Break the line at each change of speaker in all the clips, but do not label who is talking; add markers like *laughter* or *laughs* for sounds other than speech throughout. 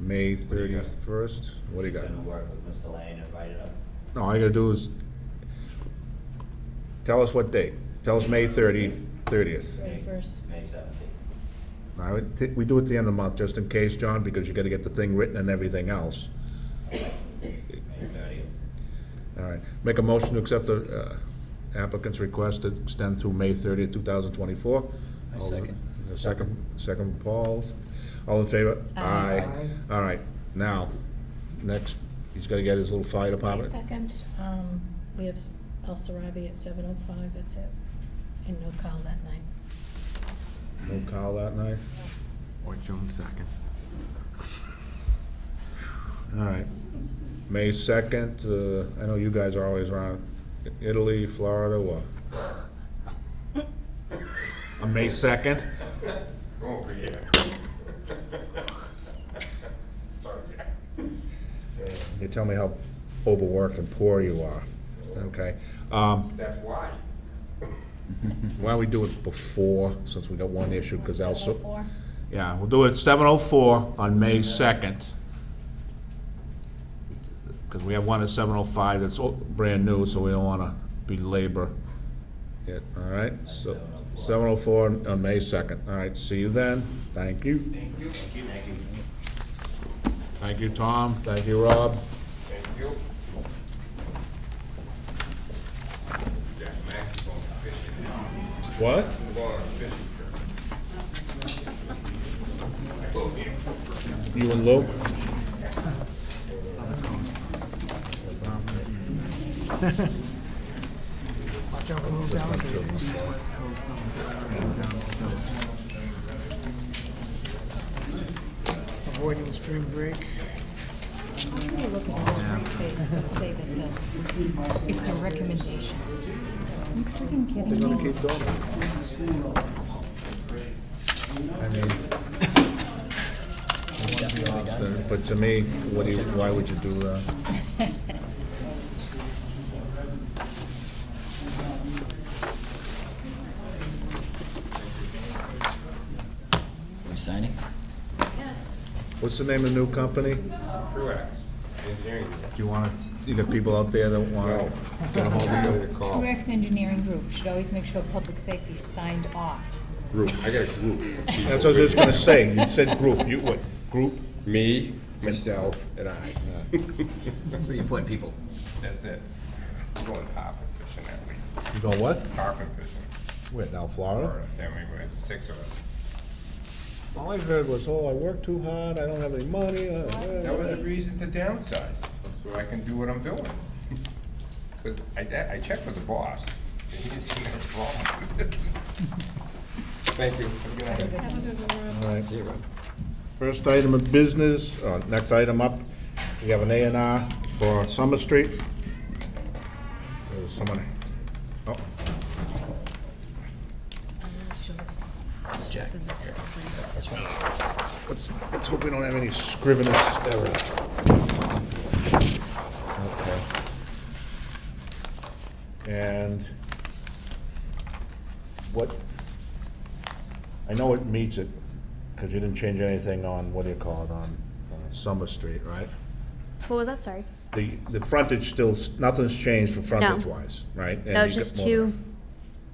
May
What do you got?
thirty-first, what do you
He's
got?
gonna work with Mr. Lane and write it up.
No, all you gotta do is, tell us what date, tell us May thirty, thirtieth.
May-
31st.
May seventeenth.
I would thi- we do it at the end of the month, just in case, John, because you gotta get the thing written and everything else.
May thirtieth.
All right, make a motion to accept the uh, applicant's request to extend through May thirtieth, two thousand twenty-four.
I second.
Second, second, Paul, all in favor?
Aye.
All right, now, next, he's gotta get his little fire
My
department.
second, um, we have El Sarabi at seven oh five, that's it, and no call that night.
No call that night?
Or June second.
All right. May second, uh, I know you guys are always around Italy, Florida, what? On May second?
Over here. *laughs* Sorry, Jack.
You tell me how overworked and poor you are, okay? Um,
That's why.
why don't we do it before, since we got one issue, because
Seven oh
also,
four?
yeah, we'll do it at seven oh four on May second. Because we have one at seven oh five that's all- brand new, so we don't wanna belabor it, all right? So, seven oh four on May second, all right, see you then, thank you.
Thank you. Thank you.
Thank you, Tom, thank you, Rob.
Thank you. Jack Max is going fishing now.
What?
I'm going on a fishing trip. I told him.
You and Lou?
Watch out for little alligators, East, west coast. Avoiding spring break.
How can you look at this straight face and say that the, it's a recommendation? You freaking kidding me?
keep going. I mean, I won't be obstinate, but to me, what do you, why would you do that?
We're signing?
What's the name of the new company? Do
Truax, engineering.
you want to, you got people out there that want to get a hold of you?
Call.
UX Engineering Group should always make sure public safety is signed off.
Group, I got a group.
That's what I was just going to say. You said group, you, what, group?
Me, myself, and I.
So you put people.
*laughs* That's it. I'm going tarpon fishing that week.
You go what?
Tarpon fishing.
Where, down
Or,
Florida?
then we went, six of us.
All I heard was, oh, I work too hard, I don't have any money. uh,
That was
uh, uh."
the reason to downsize, so I can do what I'm doing. But I, de- I checked with the boss, and he didn't see no problem. Thank you. Have a good night.
All right. First item of business, uh, next item up, we have an A and R for Summer Street. There's someone, oh,
I'm not sure. It's just in the-
let's, let's hope we don't have any scrivener's error. Okay. And what, I know it meets it, because you didn't change anything on, what do you call it, on uh, Summer Street, right?
What was that? Sorry.
The, the frontage still, s- nothing's changed for frontage-wise, right? And
That was
you
just
got more- Oh,
two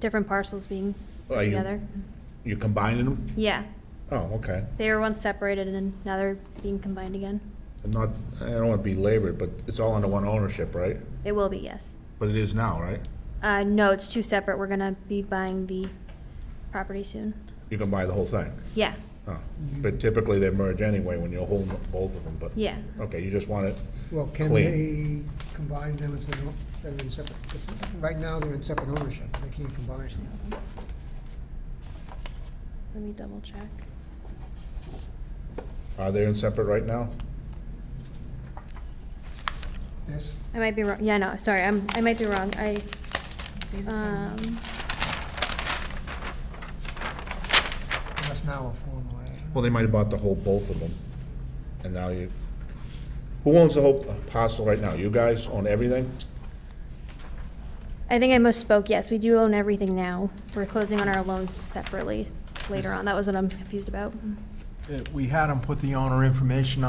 different parcels being
Are
put
you-
together.
You combining them?
Yeah,
Oh, okay.
they were once separated and then now they're being combined again.
I'm not, I don't want to be labored, but it's all under one ownership, right?
They will be, yes.
But it is now, right?
Uh, no, it's two separate. We're gonna be buying the property soon.
You can buy the whole thing?
Yeah,
Oh, but typically they merge anyway when you hold both of them, but.
Mm-hmm. yeah.
Okay, you just want it,
Well, can they
Clean.
combine them if they don't, they're in separate, if- right now they're in separate ownership, they can't combine them.
Let me double check.
are they in separate right now?
Yes,
I might be wrong. Yeah, no, sorry, I'm, I might be wrong. I,
See this on-
um,
that's now a formal. I don't know.
Well, they might have bought the whole, both of them, and now you, who owns the whole uh, parcel right now? You guys own everything?
I think I misspoke. Yes, we do own everything now. We're closing on our loans separately later on. That was what I'm confused about.
Uh, We had them put the owner information